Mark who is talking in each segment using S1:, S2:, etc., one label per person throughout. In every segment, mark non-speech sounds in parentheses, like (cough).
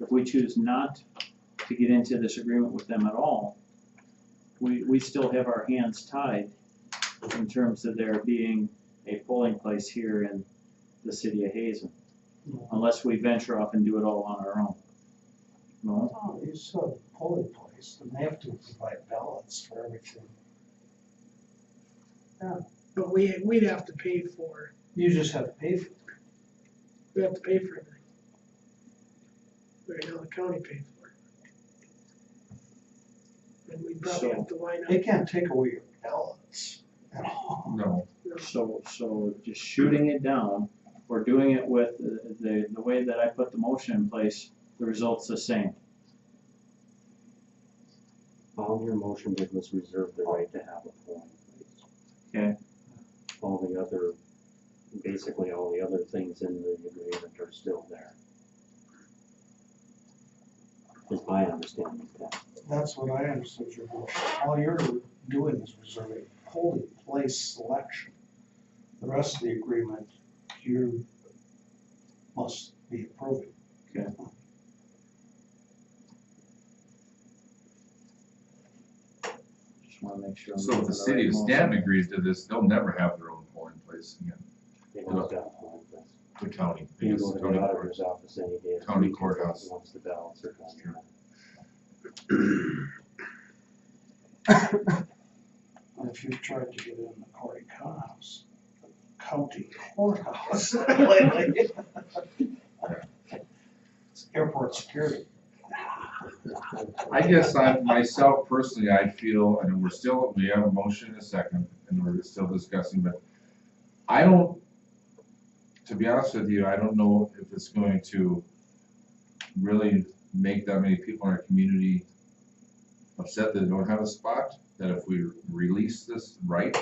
S1: If we choose not to get into this agreement with them at all, we, we still have our hands tied in terms of there being a polling place here in the city of Hazen, unless we venture off and do it all on our own. No?
S2: Oh, you said polling place, and they have to provide ballots for everything.
S3: But we, we'd have to pay for,
S2: You just have to pay for it.
S3: we have to pay for everything. Right now, the county paid for it. And we probably have to line
S2: They
S3: up,
S2: can't take away your ballots at all.
S4: No.
S1: So, so just shooting it down, or doing it with uh, the, the way that I put the motion in place, the result's the same.
S5: All your motion did was reserve the right to have a polling place.
S1: Okay.
S5: All the other, basically all the other things in the agreement are still there. Is my understanding of that.
S2: That's what I understood your motion. All you're doing is reserving polling place selection. The rest of the agreement, you must be approving.
S1: Okay. Just wanna make sure. I'm
S4: So if
S1: doing
S4: the city
S1: right
S4: of
S1: motion.
S4: Stanton agrees to this, they'll never have their own polling place again,
S5: They don't have to have a polling place.
S4: the county.
S5: You
S4: because
S5: go to the
S4: county court-
S5: auditor's office any day. of the
S4: County
S5: week
S4: courthouse.
S5: Once the ballots are done.
S2: And if you tried to get in the Cory Connors, county courthouse (laughs) lately. It's (laughs) Airport security.
S4: I guess I, myself personally, I feel, and we're still, we have a motion and a second, and we're still discussing, but I don't, to be honest with you, I don't know if it's going to really make that many people in our community upset that they don't have a spot, that if we release this right,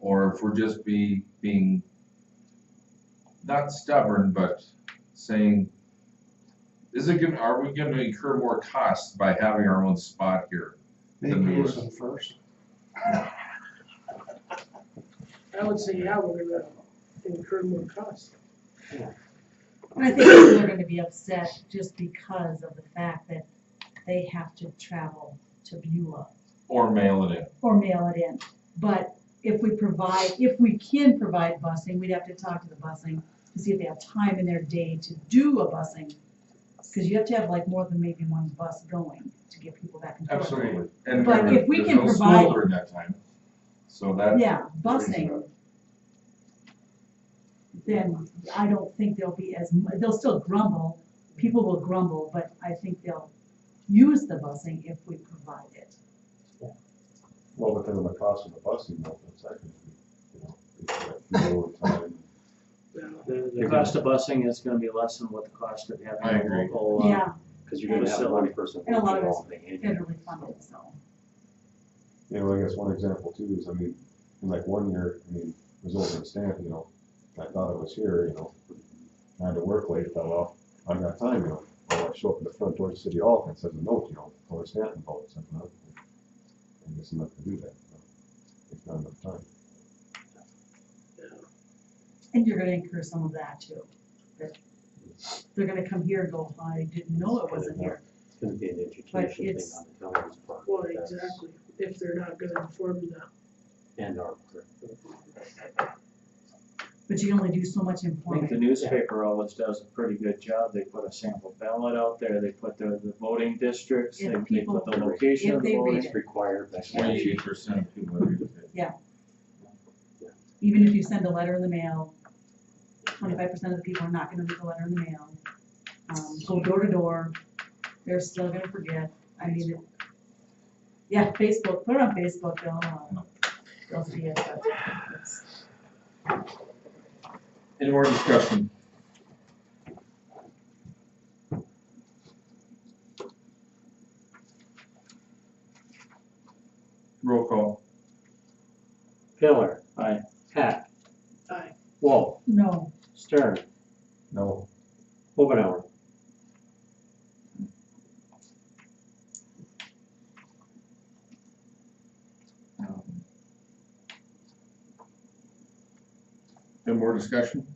S4: or if we're just be, being not stubborn, but saying, is it gonna, are we gonna incur more costs by having our own spot here?
S2: They use them first.
S3: I would say, yeah, we're gonna incur more costs.
S6: And I think people are gonna be upset just because of the fact that they have to travel to Beulah
S4: Or mail it in?
S6: or mail it in. But if we provide, if we can provide busing, we'd have to talk to the busing to see if they have time in their day to do a busing. Cause you have to have like more than maybe one bus going to get people back and forth.
S4: And
S6: But
S4: there-
S6: if we
S4: there's
S6: can
S4: no school
S6: provide-
S4: During that time, so that.
S6: Yeah,
S4: brings it
S6: busing.
S4: up.
S6: Then I don't think there'll be as, mu- they'll still grumble, people will grumble, but I think they'll use the busing if we provide it.
S7: Well, but then the cost of the bus, you know, for the second, you know, it's like fuel time.
S3: Now,
S1: The, the cost of busing is gonna be less than what the cost of
S4: I
S1: having a
S4: agree.
S1: local, uh,
S6: Yeah,
S5: (laughs) Cause you're gonna have one person.
S6: And a lot of
S5: who
S6: it's
S5: can handle it.
S6: federally funded, so.
S7: You know, I guess one example too is, I mean, in like one year, I mean, it was over in Stanton, you know, I thought I was here, you know, trying to work late, fell off, I got time, you know. Well, I show up at the front door to City Hall and it says a note, you know, for Stanton vote, something like that. I guess I'm not gonna do that, you know. it's not enough time.
S6: And you're gonna incur some of that too. That They're gonna come here and go, "Oh, I didn't know it wasn't here.
S5: It's gonna be an education thing
S6: it's-
S5: on the county's part. uh,
S3: Well,
S5: That's-
S3: exactly, if they're not gonna inform the,
S5: And our.
S6: But you can only do so much
S1: I think the
S6: informing.
S1: newspaper always does a pretty good job, they put a sample ballot out there, they put the, the voting districts, they,
S6: If
S1: they put the
S5: people-
S1: location
S6: if
S1: of
S6: they
S1: voting.
S6: read
S5: It's required by
S4: Twenty-eight
S5: statute.
S4: percent of people agree with it.
S6: Even if you send a letter in the mail, twenty-five percent of the people are not gonna read the letter in the mail. Um, go door to door, they're still gonna forget. I mean, it- yeah, Facebook, put it on Facebook, they'll, uh, they'll see it, but it's.
S4: Any more discussion? Roll call.
S5: Pillar.
S1: Aye.
S5: Hack.
S3: Aye.
S5: Wall.
S6: No,
S5: Stern.
S7: No,
S5: Omenauer.
S4: Um, Any more discussion?